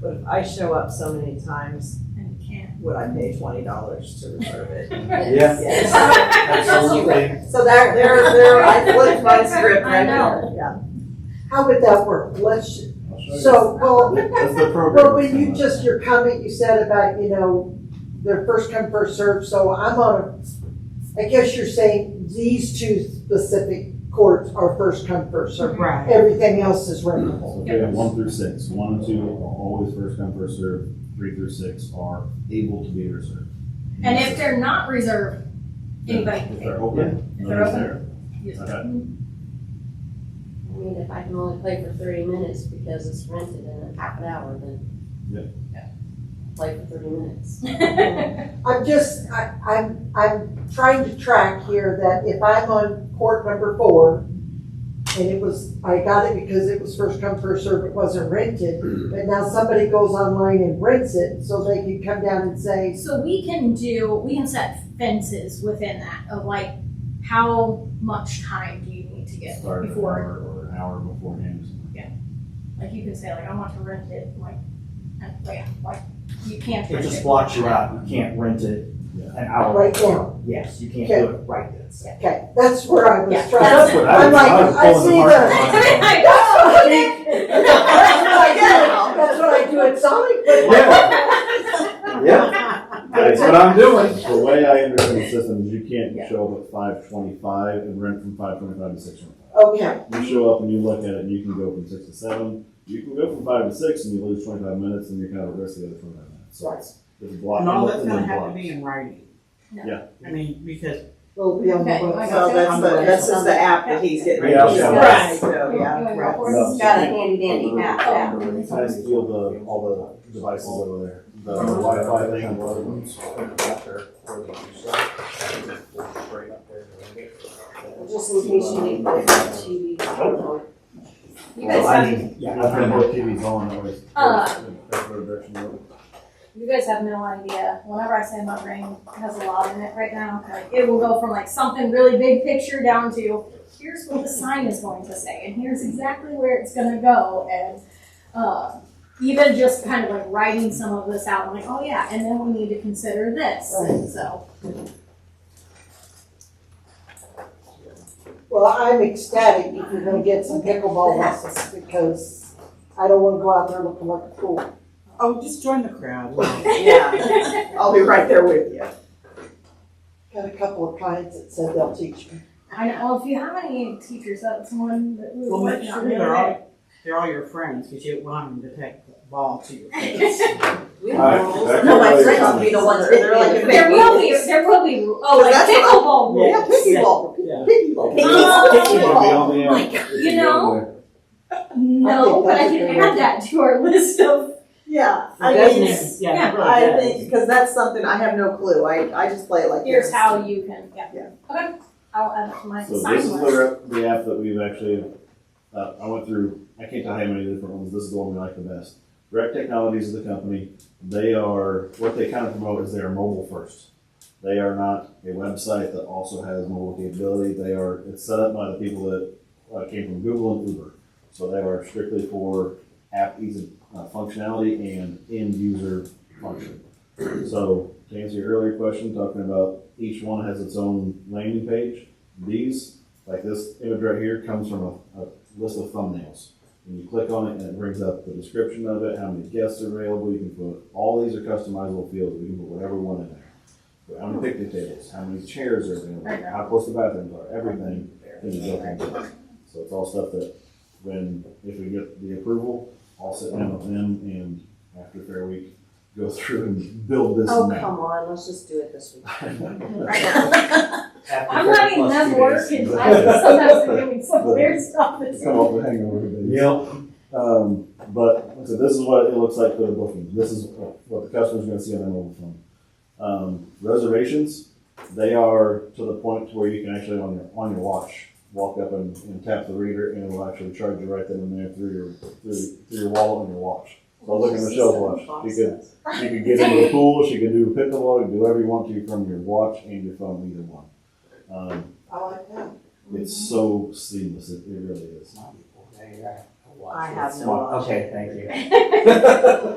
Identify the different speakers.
Speaker 1: But if I show up so many times,
Speaker 2: And can't.
Speaker 1: would I pay twenty dollars to reserve it?
Speaker 3: Yeah.
Speaker 1: Yes.
Speaker 3: Absolutely.
Speaker 1: So there, there, there, I flipped my script right
Speaker 2: I know.
Speaker 1: there, yeah.
Speaker 4: How would that work? Let's,
Speaker 5: So,
Speaker 4: so, well,
Speaker 5: that's the program.
Speaker 4: well, when you just, your comment you said about, you know, they're first come, first served, so I'm on a, I guess you're saying these two specific courts are first come, first served.
Speaker 1: Right.
Speaker 4: Everything else is rentable.
Speaker 3: So
Speaker 2: Yeah.
Speaker 3: we have one through six. One and two are always first come, first served. Three through six are able to be reserved.
Speaker 2: And if they're not reserved, anybody can
Speaker 3: If
Speaker 2: take it.
Speaker 3: they're open,
Speaker 2: If they're
Speaker 3: nobody's
Speaker 2: open.
Speaker 3: there. Okay.
Speaker 6: I mean, if I can only play for thirty minutes because it's rented in a half an hour, then.
Speaker 3: Yeah.
Speaker 6: Play for thirty minutes.
Speaker 4: I'm just, I, I'm, I'm trying to track here that if I'm on court number four, and it was, I got it because it was first come, first served, it wasn't rented, but now somebody goes online and rents it, so they can come down and say,
Speaker 2: So we can do, we can set fences within that of like, how much time do you need to get
Speaker 3: Start an
Speaker 2: before?
Speaker 3: hour or an hour beforehand. or something.
Speaker 2: Like you can say like, I want to rent it, like, and, yeah, like, you can't
Speaker 7: It
Speaker 2: rent
Speaker 7: just
Speaker 2: it.
Speaker 7: blocks you out, you can't rent it
Speaker 3: Yeah.
Speaker 7: an hour,
Speaker 4: right now,
Speaker 7: yes, you can't do it right then. so.
Speaker 4: okay, that's where I
Speaker 2: Yeah.
Speaker 4: was
Speaker 3: That's
Speaker 4: trying.
Speaker 3: what
Speaker 4: I'm
Speaker 3: I was, I
Speaker 4: like,
Speaker 3: was
Speaker 4: I
Speaker 3: pulling
Speaker 4: see
Speaker 3: apart.
Speaker 4: the.
Speaker 2: I
Speaker 4: That's what I do,
Speaker 2: know.
Speaker 4: that's what I do at Sonic, but.
Speaker 3: Yeah, yeah. That's what I'm doing. The way I understand the system is you
Speaker 2: Yeah.
Speaker 3: can't show up at five twenty-five and rent from five twenty-five to six twenty-five.
Speaker 4: Okay,
Speaker 3: You show up and you look at it, and you can go from six to seven. You can go from five to six, and you lose twenty-five minutes, and you kind of risk the other twenty-five minutes. So it's, it's a block.
Speaker 5: And
Speaker 3: and
Speaker 5: all that's
Speaker 3: then
Speaker 5: gonna have to
Speaker 3: blocks.
Speaker 5: be in writing.
Speaker 2: No.
Speaker 3: Yeah.
Speaker 5: I mean, because
Speaker 4: we'll be on the
Speaker 2: Okay, I got
Speaker 4: website.
Speaker 1: So that's the, that's just the app that he's getting ready to sell.
Speaker 2: Right.
Speaker 1: So, yeah, right.
Speaker 3: No.
Speaker 6: Got a handy dandy map out.
Speaker 3: I just feel the, all the devices over there, the Wi-Fi thing, and all the ones.
Speaker 6: Just in case you need to, to,
Speaker 2: You guys have,
Speaker 3: Yeah, I've been with TVs on, always.
Speaker 2: Uh.
Speaker 3: Well,
Speaker 2: you guys have no idea, whenever I say my brain has a lot in it right now, like, it will go from like something really big picture down to, here's what the sign is going to say, and here's exactly where it's gonna go, and, uh, even just kind of like writing some of this out, I'm like, oh yeah, and then we need to consider this, and so.
Speaker 4: Well, I'm ecstatic if you're gonna get some pickleball lessons, because I don't wanna go out there looking like a fool.
Speaker 5: oh, just join the crowd.
Speaker 1: Yeah. I'll be right there with you.
Speaker 4: Got a couple of clients that said they'll teach me.
Speaker 2: I know, well, if you have any teachers, that's one that we
Speaker 5: Well,
Speaker 2: were
Speaker 5: make
Speaker 2: working
Speaker 5: sure
Speaker 2: on.
Speaker 5: they're all they're all your friends because you don't want them to take the ball to your face.
Speaker 1: We
Speaker 3: All right,
Speaker 1: have rules.
Speaker 3: back
Speaker 1: No,
Speaker 3: to
Speaker 1: my
Speaker 3: the
Speaker 1: friends will be the ones, they're like.
Speaker 2: There will be, there will be, oh, like
Speaker 1: That's what I-
Speaker 2: pickleball rules.
Speaker 1: Yeah, pickleball,
Speaker 5: Yeah.
Speaker 1: pickleball.
Speaker 3: on the
Speaker 2: my
Speaker 3: app.
Speaker 2: You know? No, but I can add that to our list of,
Speaker 1: Yeah, I mean,
Speaker 5: Doesn't-
Speaker 1: it's-
Speaker 5: Yeah, it really
Speaker 1: I
Speaker 5: does.
Speaker 1: think, because that's something, I have no clue, I, I just play it like this.
Speaker 2: here's how you can, yeah.
Speaker 1: Yeah.
Speaker 2: Okay, I'll add it to my
Speaker 3: So this
Speaker 2: sign
Speaker 3: is
Speaker 2: list.
Speaker 3: the, the app that we've actually, uh, I went through, I can't tell you how many different ones, this is the one we like the best. Rec Technologies is the company, they are, what they kind of promote is they are mobile first. They are not a website that also has mobile capability, they are, it's set up by the people that uh, came from Google and Uber. So they are strictly for app ease of uh, functionality and end user function. So to answer your earlier question, talking about each one has its own landing page. These, like this image right here, comes from a, a list of thumbnails. And you click on it and it brings up the description of it, how many guests are available, you can put, all these are customizable fields, we can put whatever one in there. But How many picnic tables, how many chairs are available, how close the bathrooms are, everything is built into it. So it's all stuff that, when, if we get the approval, I'll sit down with them and after Fair Week, go through and build this
Speaker 6: oh,
Speaker 3: map.
Speaker 6: come on, let's just do it this week.
Speaker 2: I'm letting them work and I sometimes they're doing some weird stuff. It's-
Speaker 3: Come off the hangover. Yep. Um, but, so this is what it looks like for the booking. This is what the customer's gonna see on their mobile phone. Um, reservations, they are to the point to where you can actually on your, on your watch, walk up and, and tap the reader and it'll actually charge you right then and there through your, through, through your wallet on your watch. So look at Michelle's watch. She could, she could get into the pool, she could do pickleball, you can do whatever you want to from your watch and your phone, either one. Um,
Speaker 4: I like that.
Speaker 3: it's so seamless, it, it really is.
Speaker 1: I have no
Speaker 7: Okay, thank you.